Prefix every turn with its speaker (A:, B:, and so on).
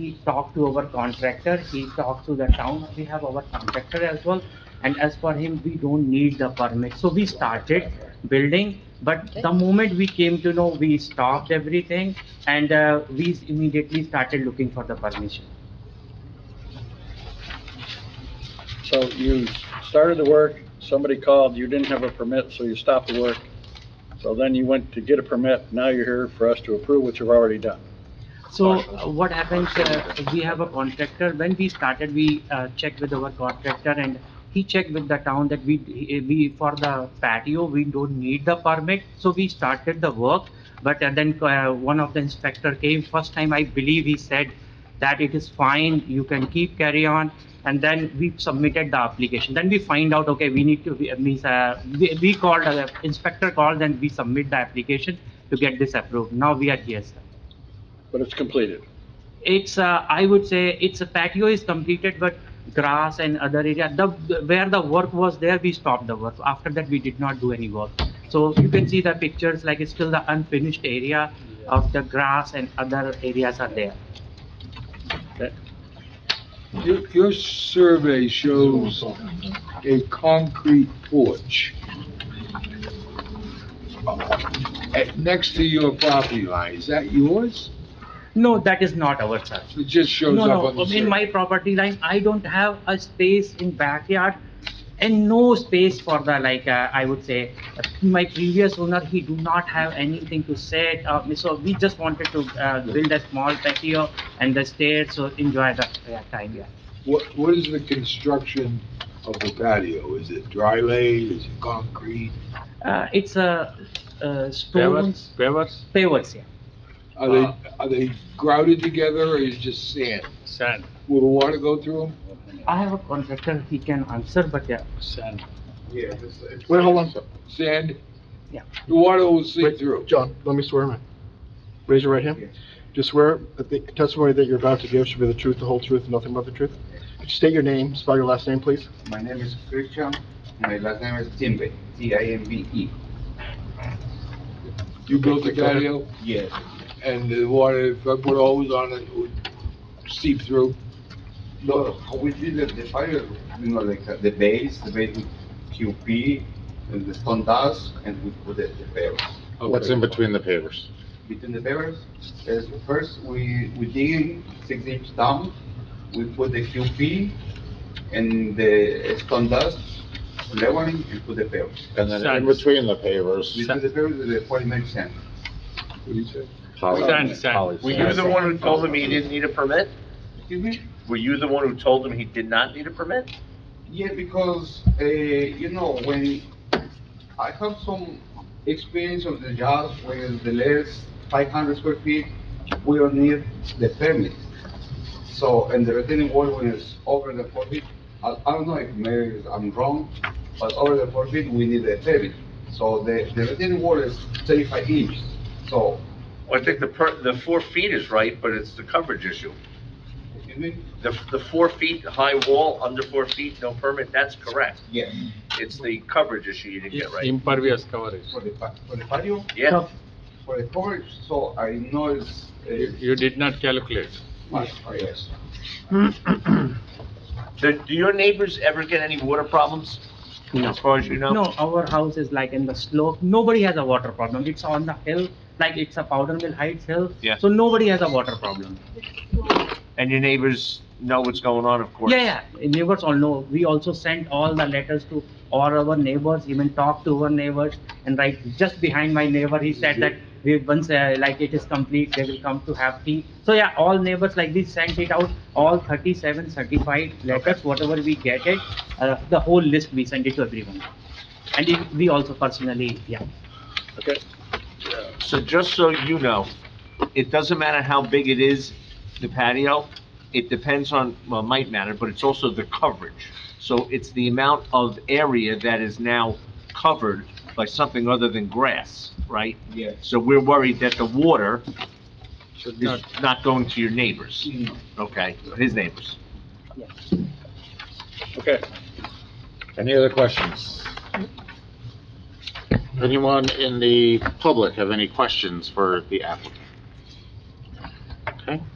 A: we talk to our contractor, he talks to the town, we have our contractor as well. And as for him, we don't need the permit. So we started building, but the moment we came to know, we stopped everything and uh, we immediately started looking for the permission.
B: So you started the work, somebody called, you didn't have a permit, so you stopped the work. So then you went to get a permit, now you're here for us to approve what you've already done.
A: So uh, what happens, uh, we have a contractor, when we started, we uh, checked with our contractor and he checked with the town that we, we, for the patio, we don't need the permit, so we started the work. But uh, then uh, one of the inspector came, first time I believe he said that it is fine, you can keep carry on. And then we submitted the application, then we find out, okay, we need to, we- means, uh, we we called, uh, inspector called and we submit the application to get this approved, now we are here, sir.
B: But it's completed.
A: It's, uh, I would say, it's a patio is completed, but grass and other area, the, where the work was there, we stopped the work. After that, we did not do any work. So you can see the pictures, like it's still the unfinished area of the grass and other areas are there.
C: Your, your survey shows a concrete porch uh, next to your property line. Is that yours?
A: No, that is not our sir.
C: It just shows
A: No,
C: up on
A: no,
C: the
A: in my
C: survey.
A: property line, I don't have a space in backyard and no space for the, like, uh, I would say, my previous owner, he do not have anything to sit, uh, so we just wanted to, uh, build a small patio and the stairs, so enjoy the uh, time, yeah.
C: What, what is the construction of the patio? Is it dry laid? Is it concrete?
A: Uh, it's a, uh,
D: Pavers,
A: stones,
D: pavers,
A: pavers, yeah.
C: Are
A: Uh.
C: they, are they grouted together or is it just sand?
D: sand,
C: Will the water go through them?
A: I have a contractor, he can answer, but yeah,
D: sand.
E: Yeah.
F: Wait, hold on.
C: Sand?
A: Yeah.
C: The water will seep
F: Wait,
C: through.
F: John, let me swear, man. Raise your right hand. Do you swear that the testimony that you're about to give should be the truth, the whole truth, and nothing but the truth? Could you state your name, spell your last name, please?
E: My name is Christian, my last name is Timbe, T I M B E.
C: You built the
F: Okay, go ahead.
C: patio
E: Yes.
C: and the water, if I put hose on it, it would seep through.
E: No, how we did it, the fire, you know, like uh, the base, the base with QP and the stone dust and we put it the pavers.
C: What's in between?
E: Between the pavers, is first we, we dig in six inch down, we put the QP and the stone dust leveling and put the pavers.
G: And then in
D: Sand.
G: between the pavers.
E: Between the pavers, the polymer sand.
D: Sand, sand.
H: Were you the one who told him he didn't need a permit?
E: Excuse me?
H: Were you the one who told him he did not need a permit?
E: Yeah, because, uh, you know, when I have some experience of the jobs where the less five hundred square feet, we don't need the permit. So, and the retaining wall when it's over the four feet, I, I don't know if maybe I'm wrong, but over the four feet, we need a permit. So the, the retaining wall is thirty-five inches, so,
H: Well, I think the per, the four feet is right, but it's the coverage issue.
E: excuse me?
H: The, the four feet high wall, under four feet, no permit, that's correct.
E: Yes,
H: It's the coverage issue you didn't get right.
D: Impervious coverage.
E: for the, pa- for the patio,
H: Yeah,
E: for the coverage, so I know it's,
D: You
E: uh,
D: you did not calculate.
E: much, yes.
H: do, do your neighbors ever get any water problems? As far as you know?
A: No, our house is like in the slope, nobody has a water problem, it's on the hill, like it's a powder mill heights hill.
H: Yeah.
A: So nobody has a water problem.
H: And your neighbors know what's going on, of course?
A: Yeah, yeah, neighbors all know. We also sent all the letters to all our neighbors, even talked to our neighbors. And right, just behind my neighbor, he said that we once, uh, like it is complete, they will come to have tea. So yeah, all neighbors like this sent it out, all 37 certified letters, whatever we get it, uh, the whole list, we send it to everyone. And it- we also personally, yeah.
B: Okay,
H: So just so you know, it doesn't matter how big it is, the patio, it depends on, well, it might matter, but it's also the coverage. So it's the amount of area that is now covered by something other than grass, right?
E: Yes.
H: So we're worried that the water
D: Should
H: is
D: not.
H: not going to your neighbors,
E: Mm.
H: okay, his neighbors.
B: okay.
G: Any other questions? Anyone in the public have any questions for the applicant? Okay,